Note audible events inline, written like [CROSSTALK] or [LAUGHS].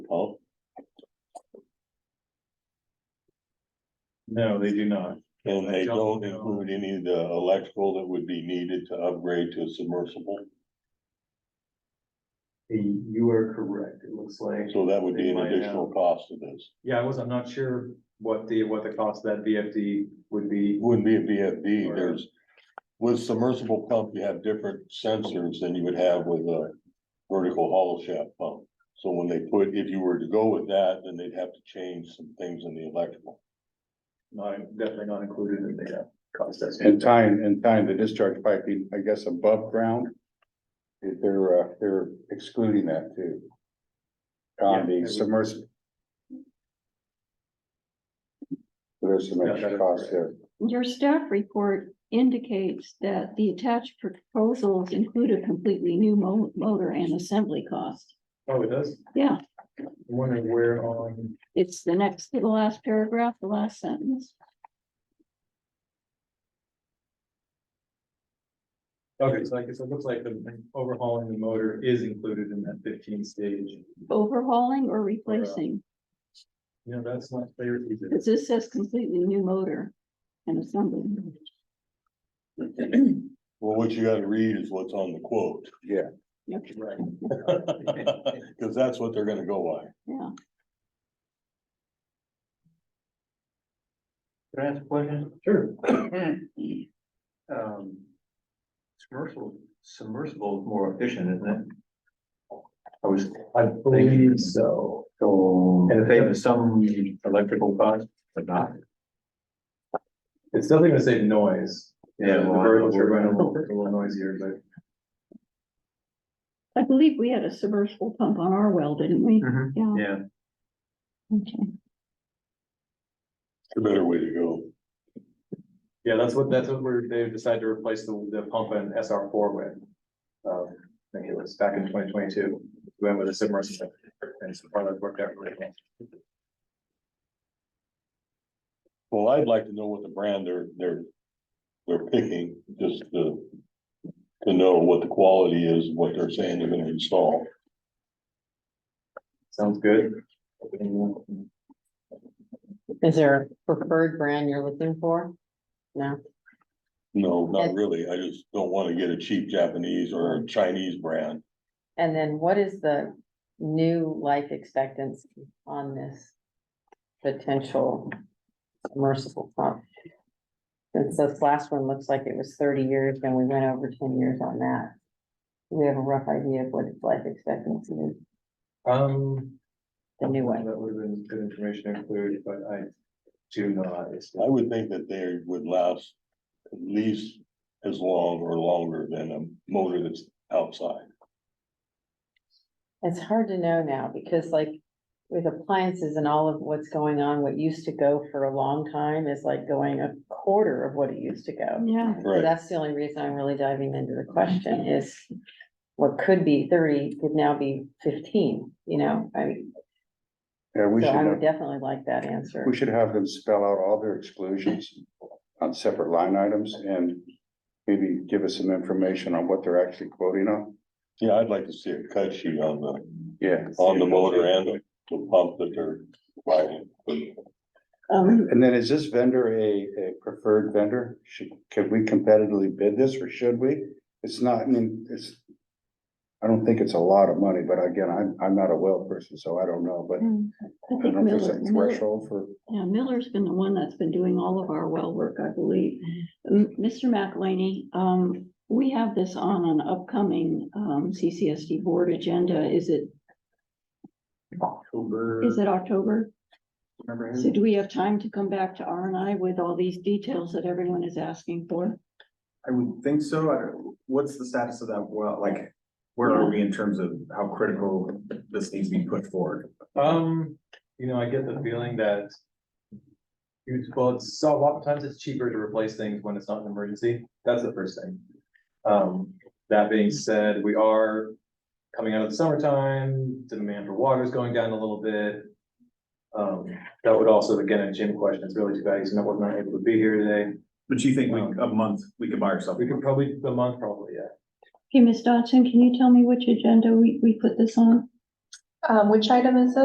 Paul? No, they do not. And they Don't don't know. include any of the electrical that would be needed to upgrade to a submersible, You are correct, it looks like. so that would be an They might, uh, additional cost to this. Yeah, I was, I'm not sure what the, what the cost of that VFD would It be. Wouldn't be a VFD, Or- there's, with submersible pump, you have different sensors than you would have with a vertical hollow shaft pump. So when they put, if you were to go with that, then they'd have to change some things in the electrical. Not, definitely not included in the uh, cost estimate. And tying, and tying the discharge piping, I guess, above ground. They're, uh, they're excluding that too. On Yeah, it the would- submersible. There's some Yeah, that extra is cost correct. there. Your staff report indicates that the attached proposals include a completely new mo- motor and assembly cost. Oh, it does? Yeah, I'm wondering where on, it's the next to the last paragraph, the last sentence. okay, so I guess it looks like the overhauling the motor is included in that fifteen stage. Overhauling or replacing? You know, that's not clear. either. Because this says completely new motor and assembly. Well, what you gotta read is what's on the quote, [LAUGHS] Okay, Right. cause that's what they're gonna go by. Yeah, Can I ask a question? Sure. [CLEARS THROAT] Um, submersible, submersible is more efficient, isn't it? I was, I believe so. so, And and if if they- some electrical cost, but not. It's definitely gonna save noise. Yeah, The well, I- vertical turbine will be a little noisier, but. I believe we had a submersible pump on our well, didn't we? Mhm. Yeah, Yeah, okay. It's a better way to go. Yeah, that's what, that's what we're, they decided to replace the, the pump in SR four with. Um, I think it was back in twenty twenty-two, we went with a submersible. And so far that's worked out really well. Well, I'd like to know what the brand they're, they're, they're picking, just to, to know what the quality is, what they're saying they're gonna install. Sounds good. Is there a preferred brand you're looking for? No, No, not Okay. really, I just don't wanna get a cheap Japanese or a Chinese brand. and then what is the new life expectancy on this potential submersible pump? Since this last one looks like it was thirty years, then we went over ten years on that. Do We have a rough idea of what its life expectancy is, Um, the new one. that would have been good information to include, but I do not. It's- I would think that they would last at least as long or longer than a motor that's outside. It's hard to know now because like with appliances and all of what's going on, what used to go for a long time is like going a quarter of what it used to go. Yeah, So Right, that's the only reason I'm really diving into the question is what could be thirty could now be fifteen, you know, I mean, Yeah, we so should, I would have- definitely like that answer. we should have them spell out all their exclusions on separate line items and maybe give us some information on what they're actually quoting on. yeah, I'd like to see a cut sheet on the, Yeah. on the motor and the- the pump that they're providing. Um, And then is this vendor a, a preferred vendor? Should, can we competitively bid this or should we? It's not, I mean, it's. I don't think it's a lot of money, but again, I'm, I'm not a well person, so I don't know, but Mm. I I don't think know if there's Miller, a Miller- threshold for. yeah, Miller's been the one that's been doing all of our well work, I believe. M- Mr. McElhaney, um, we have this on an upcoming, um, CCSD board agenda. Is it, October. is it October? Remember So him? do we have time to come back to R and I with all these details that everyone is asking for? I would think so. I don't- What's the status of that well? Like, where are we in terms of how critical this needs to be put forward? Um, you know, I get the feeling that. you- Well, it's so oftentimes it's cheaper to replace things when it's not an emergency. That's the first thing. Um, that being said, we are coming out of the summertime, demand for water is going down a little bit. Um, that would also, again, a Jim question. It's really too bad he's not, was not able to be here today. But you think we- a month, we could buy ourselves? We could probably, a month probably, yeah. Okay, Ms. Dodson, can you tell me which agenda we, we put this on? Um, which item is it?